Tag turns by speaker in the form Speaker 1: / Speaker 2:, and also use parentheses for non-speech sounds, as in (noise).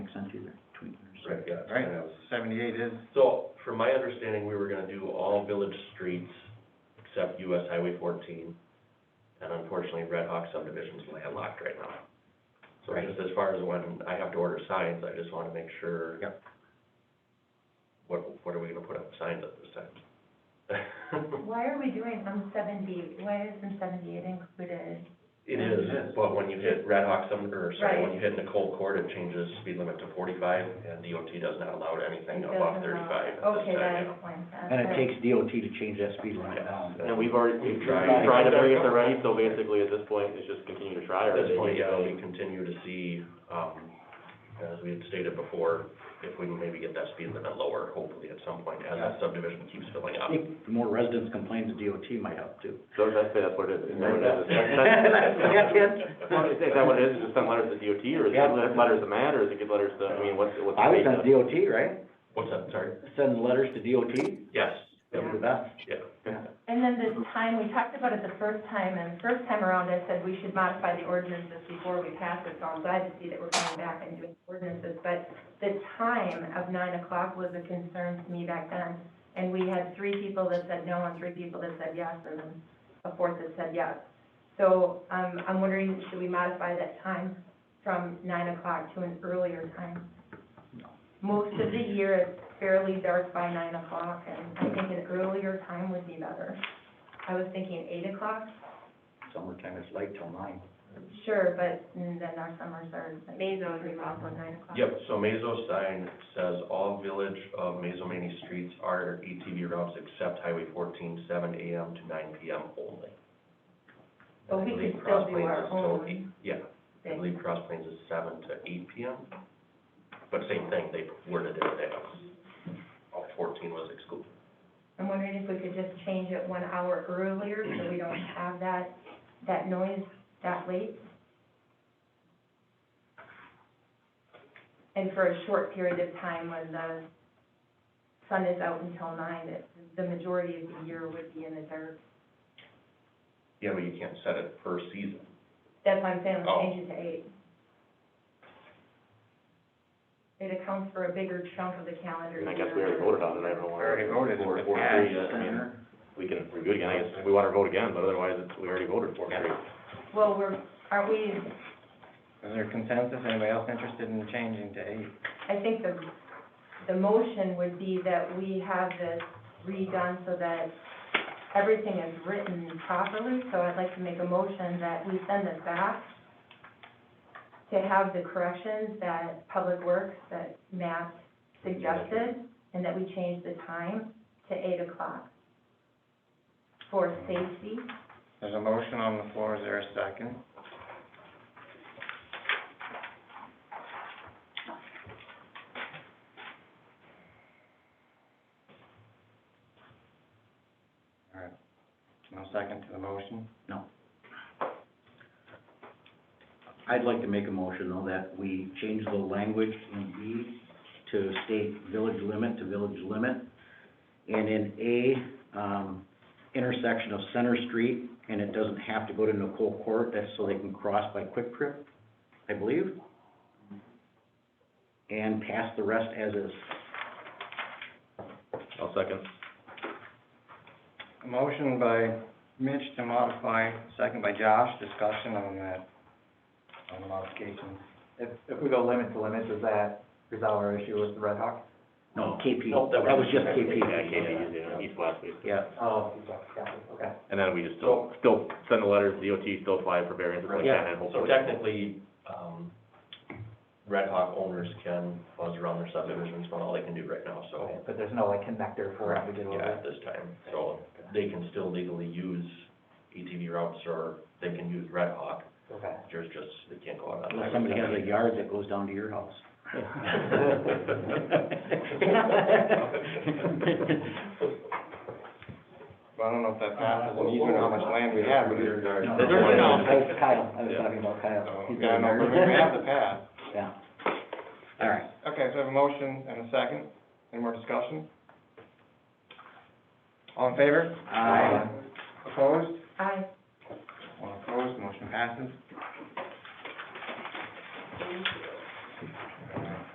Speaker 1: yeah.
Speaker 2: Right.
Speaker 1: and that was-
Speaker 2: Seventy-eight is,
Speaker 1: So, from my understanding, we were gonna do all village streets except US Highway fourteen. And unfortunately, Red Hawk subdivision's landlocked right now. So
Speaker 2: Right.
Speaker 1: just as far as when I have to order signs, I just wanna make sure.
Speaker 2: Yep.
Speaker 1: What, what are we gonna put up signs at this
Speaker 3: (laughs)
Speaker 1: time?
Speaker 3: Why are we doing from seventy, why is from seventy-eight included?
Speaker 1: It
Speaker 2: Yeah, it
Speaker 1: is,
Speaker 2: is.
Speaker 1: but when you hit Red Hawk sub, or sorry, when
Speaker 3: Right.
Speaker 1: you hit Nicole Court, it changes speed limit to forty-five, and DOT does not allow anything
Speaker 3: It
Speaker 1: above
Speaker 3: doesn't allow-
Speaker 1: thirty-five at this
Speaker 3: Okay, that
Speaker 1: time.
Speaker 3: explains that.
Speaker 2: and it
Speaker 3: But-
Speaker 2: takes DOT to change that speed limit
Speaker 1: Yes.
Speaker 2: down.
Speaker 4: And we've already,
Speaker 1: We've
Speaker 4: we've
Speaker 1: tried.
Speaker 4: tried, tried to bring it to ready, so basically at this point, it's just continue to try. or
Speaker 1: At this
Speaker 4: they
Speaker 1: point,
Speaker 4: need
Speaker 1: yeah,
Speaker 4: to-
Speaker 1: we continue to see, um, as we had stated before, if we can maybe get that speed limit lower, hopefully at some point, as that subdivision keeps filling
Speaker 2: I
Speaker 1: up.
Speaker 2: think the more residents complain to DOT might help too.
Speaker 4: So that's, that's what it is. Is that what it is?
Speaker 2: Yeah, (laughs) kid.
Speaker 4: Well, is that what it is, just send letters to DOT, or is it
Speaker 2: Yeah.
Speaker 4: let- letters to MAD, or is it get letters to, I mean, what's, what's the
Speaker 2: I would
Speaker 4: date?
Speaker 2: send
Speaker 4: of-
Speaker 2: DOT, right?
Speaker 1: What's that, sorry?
Speaker 2: Send letters to DOT,
Speaker 1: Yes,
Speaker 2: that would be best.
Speaker 1: yeah.
Speaker 3: And then this time, we talked about it the first time, and first time around, I said we should modify the ordinances before we pass it, so I'm glad to see that we're coming back and doing ordinances. But the time of nine o'clock was a concern to me back then, and we had three people that said no and three people that said yes, and then a fourth that said yes. So, um, I'm wondering, should we modify that time from nine o'clock to an earlier time? Most of the year, it's fairly dark by nine o'clock, and I think an earlier time would be better. I was thinking eight o'clock,
Speaker 2: Summertime is late till nine.
Speaker 3: sure, but mm, then our summers are like three o'clock or nine o'clock.
Speaker 1: Yep, so Mazo sign says all village of Mazo Manny streets are ATV routes except Highway 14, 7 AM to nine PM only.
Speaker 3: But
Speaker 1: And I
Speaker 3: we
Speaker 1: believe
Speaker 3: could
Speaker 1: Cross
Speaker 3: still do
Speaker 1: Plains
Speaker 3: our
Speaker 1: is till
Speaker 3: own.
Speaker 1: eight- Yeah, I believe Cross Plains is seven to eight PM, but same thing, they worded it as all fourteen was excluded.
Speaker 3: I'm wondering if we could just change it one hour earlier, so we don't have that, that noise that late. And for a short period of time when the sun is out until nine, that the majority of the year would be in the dark.
Speaker 1: Yeah, but you can't set it per season.
Speaker 3: That's why I'm saying,
Speaker 1: Oh.
Speaker 3: let's change it to eight. It accounts for a bigger chunk of the calendar
Speaker 4: And
Speaker 3: year.
Speaker 4: I guess we already voted on it, I don't know. why- Four- four, three, uh, I mean, we can review it again, I guess, we want to vote again, but otherwise, it's, we already voted for it.
Speaker 3: Well, we're, aren't we,
Speaker 5: Is there consensus, anybody else interested in changing to eight?
Speaker 3: I think the, the motion would be that we have this redone so that everything is written properly, so I'd like to make a motion that we send this back to have the corrections that Public Works, that Matt suggested, and that we change the time to eight o'clock for safety.
Speaker 5: There's a motion on the floor, is there a second? All right, no second to the motion?
Speaker 2: I'd like to make a motion though that we change the language in B to state village limit to village limit. And in A, um, intersection of Center Street, and it doesn't have to go to Nicole Court, that's so they can cross by Quick Trip, I believe. And pass the rest as is.
Speaker 4: I'll second.
Speaker 5: A motion by Mitch to modify, second by Josh, discussion on that, on the modification.
Speaker 6: If, if we go limit to limit, does that resolve our issue with the Red Hawk?
Speaker 2: No, KP,
Speaker 1: Nope,
Speaker 2: that
Speaker 1: that
Speaker 2: was
Speaker 1: was-
Speaker 2: just KP.
Speaker 4: Yeah, KP, yeah, east, west, east.
Speaker 2: Yeah,
Speaker 6: Oh, exactly, okay.
Speaker 4: And then we just still, still send the letters, DOT still apply for variances like
Speaker 2: Yeah.
Speaker 4: that, and
Speaker 1: So
Speaker 4: hopefully.
Speaker 1: technically, um, Red Hawk owners can buzz around their subdivisions, but all they can do right now, so.
Speaker 6: But there's no like connector for us to get
Speaker 1: Yeah,
Speaker 6: over.
Speaker 1: at this time, so they can still legally use ATV routes or they can use Red Hawk,
Speaker 6: Okay.
Speaker 1: there's just, they can't go out on.
Speaker 2: unless somebody has a yard that goes down to your house.
Speaker 5: Well, I don't know if that passes, and you don't know how much land we have, but we're.
Speaker 2: No,
Speaker 5: There's
Speaker 2: no,
Speaker 5: one
Speaker 2: no,
Speaker 5: out
Speaker 2: I was Kyle, I was talking about Kyle. He's
Speaker 5: Yeah,
Speaker 2: down
Speaker 5: no,
Speaker 2: there.
Speaker 5: but we have (laughs) the path.
Speaker 2: Yeah. All right,
Speaker 5: Okay, so I have a motion and a second. Any more discussion? All in favor?
Speaker 2: Aye.
Speaker 5: Opposed?
Speaker 3: I,
Speaker 5: All opposed, motion passes.